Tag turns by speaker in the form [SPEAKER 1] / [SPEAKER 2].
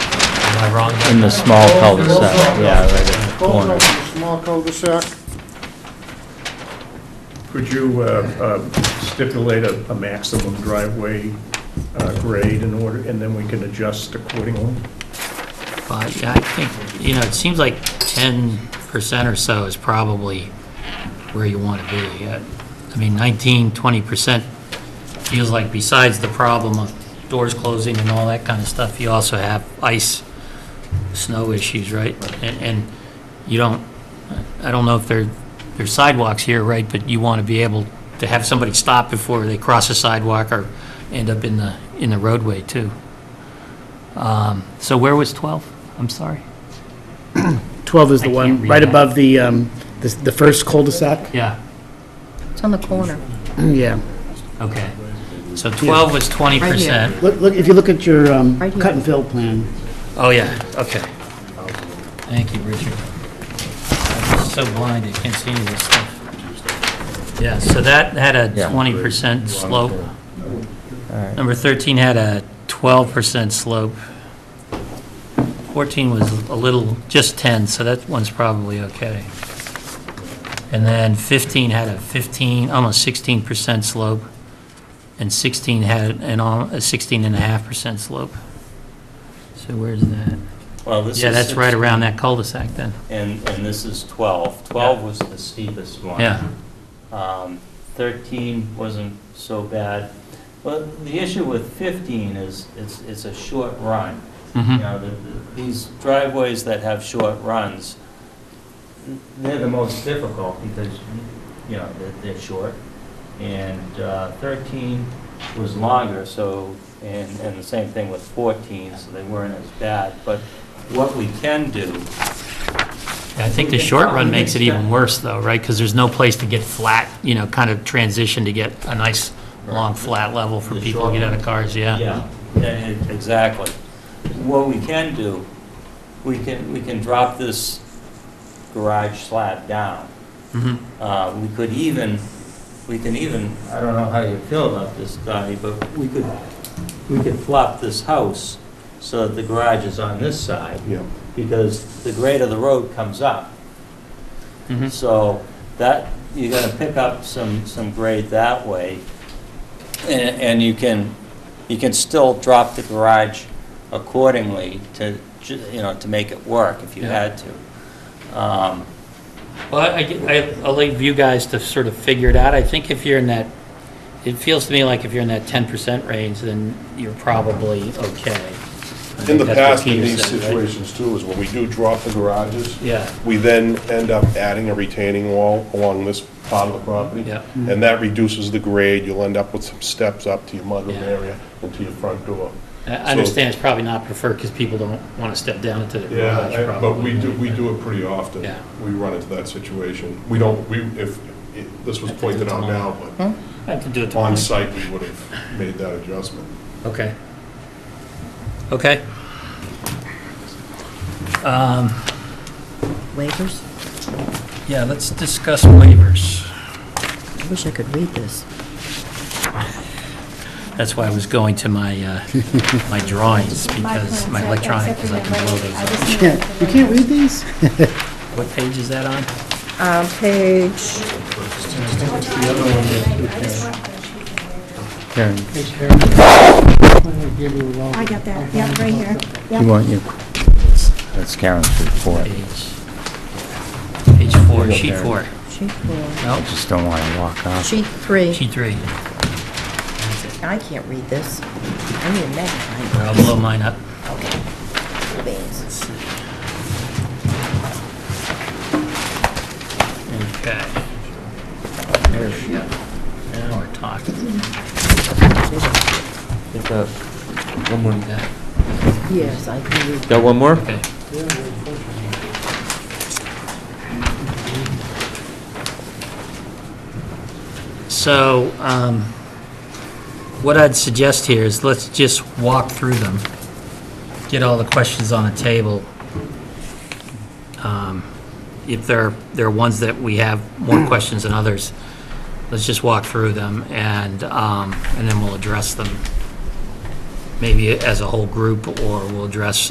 [SPEAKER 1] I wrong?
[SPEAKER 2] in the small cul-de-sac, yeah, right at the
[SPEAKER 3] Both
[SPEAKER 2] corner.
[SPEAKER 3] of them, small cul-de-sac.
[SPEAKER 4] Could you uh, uh, stipulate a a maximum driveway uh, grade in order, and then we can adjust accordingly?
[SPEAKER 1] But, yeah, I think, you know, it seems like ten percent or so is probably where you want to be. Uh, I mean, 19, 20 percent feels like besides the problem of doors closing and all that kind of stuff, you also have ice, snow issues, right? And, and you don't, I don't know if there, there's sidewalks here, right, but you want to be able to have somebody stop before they cross a sidewalk or end up in the, in the roadway, too. So where was 12? I'm sorry.
[SPEAKER 5] 12 is the
[SPEAKER 1] I can't
[SPEAKER 5] one,
[SPEAKER 1] read
[SPEAKER 5] right
[SPEAKER 1] that.
[SPEAKER 5] above the, um, the the first cul-de-sac?
[SPEAKER 1] Yeah,
[SPEAKER 6] It's on the corner.
[SPEAKER 5] Yeah.
[SPEAKER 1] okay. So 12 was 20%.
[SPEAKER 5] Look, look, if you look at your um,
[SPEAKER 6] Right here.
[SPEAKER 5] cut and fill plan,
[SPEAKER 1] Oh, yeah, okay. Thank you, Richard. I'm so blind, I can't see any of this stuff. Yeah, so that had a
[SPEAKER 2] Yeah.
[SPEAKER 1] 20% slope.
[SPEAKER 2] Alright.
[SPEAKER 1] Number 13 had a 12% slope. 14 was a little, just 10, so that one's probably okay. And then 15 had a 15, almost 16% slope, and 16 had an, al- a 16 and a half percent slope. So where's that?
[SPEAKER 7] Well, this is.
[SPEAKER 1] Yeah, that's right
[SPEAKER 7] 16,
[SPEAKER 1] around that cul-de-sac then.
[SPEAKER 7] And, and this is 12. 12 was the steepest one.
[SPEAKER 1] Yeah,
[SPEAKER 7] Um, 13 wasn't so bad. But the issue with 15 is, it's, it's a short run. You
[SPEAKER 1] mhm,
[SPEAKER 7] know, the- the- these driveways that have short runs, they're the most difficult because, you know, they're, they're short. And uh, 13 was longer, so, and, and the same thing with 14, so they weren't as bad. But what we can do
[SPEAKER 1] Yeah, I think the short run makes it even worse though, right? Because there's no place to get flat, you know, kind of transition to get a nice, long, flat level for
[SPEAKER 7] The
[SPEAKER 1] people to get out of cars,
[SPEAKER 7] Yeah, yeah, e- exactly. What we can do, we can, we can drop this garage slab down.
[SPEAKER 1] Mhm.
[SPEAKER 7] Uh, We could even, we can even, I don't know how you feel about this, Donnie, but we could, we could flop this house so that the garage is on this side,
[SPEAKER 4] Yeah.
[SPEAKER 7] because the grade of the road comes up.
[SPEAKER 1] Mhm.
[SPEAKER 7] So that, you're gonna pick up some, some grade that way, and, and you can, you can still drop the garage accordingly to, ju- you know, to make it work if you
[SPEAKER 1] Yeah.
[SPEAKER 7] had to. Um,
[SPEAKER 1] Well, I- I, get- I- I'll leave you guys to sort of figure it out. I think if you're in that, it feels to me like if you're in that ten percent range, then you're probably okay. I
[SPEAKER 8] In
[SPEAKER 1] think
[SPEAKER 8] the
[SPEAKER 1] that's what
[SPEAKER 8] past, in
[SPEAKER 1] Peter
[SPEAKER 8] these
[SPEAKER 1] said, right?
[SPEAKER 8] situations too, is when we do drop the garages,
[SPEAKER 1] Yeah,
[SPEAKER 8] we then end up adding a retaining wall along this part of the property.
[SPEAKER 1] Yep.
[SPEAKER 8] And that reduces the grade, you'll end up with some steps up to your mudroom
[SPEAKER 1] Yeah.
[SPEAKER 8] area and to your front door.
[SPEAKER 1] I I understand it's probably not preferred because people don't want to step down into the garage
[SPEAKER 8] Yeah,
[SPEAKER 1] probably.
[SPEAKER 8] but we do, we do it pretty often.
[SPEAKER 1] Yeah.
[SPEAKER 8] We run into that situation. We don't, we, if, it- this was pointed out now, but
[SPEAKER 1] I have to do it tomorrow.
[SPEAKER 8] on site, we would have made that adjustment.
[SPEAKER 1] Okay. Okay. Um,
[SPEAKER 6] Waivers?
[SPEAKER 1] Yeah, let's discuss waivers.
[SPEAKER 6] I wish I could read this.
[SPEAKER 1] That's why I was going to my, uh, my drawings because, my electronic, because I can blow those up.
[SPEAKER 5] you can't read these?
[SPEAKER 1] What page is that on?
[SPEAKER 6] Um, page,
[SPEAKER 2] Karen,
[SPEAKER 9] I got that, yeah, right here.
[SPEAKER 2] you
[SPEAKER 9] Yeah.
[SPEAKER 2] want your, that's Karen's report.
[SPEAKER 1] Page, page four, sheet four.
[SPEAKER 6] sheet four,
[SPEAKER 1] No,
[SPEAKER 2] Just don't want to walk off.
[SPEAKER 6] sheet three.
[SPEAKER 1] sheet three.
[SPEAKER 6] I can't read this. I need a magnifying
[SPEAKER 1] I'll blow mine up.
[SPEAKER 6] glass.
[SPEAKER 1] Okay. There we go. Now we're talking.
[SPEAKER 2] One more.
[SPEAKER 1] Yeah,
[SPEAKER 6] Yes, I can read.
[SPEAKER 2] Got one more?
[SPEAKER 1] Okay. So, um, what I'd suggest here is let's just walk through them, get all the questions on the table. Um, If there, there are ones that we have more questions than others, let's just walk through them and, um, and then we'll address them maybe as a whole group or we'll address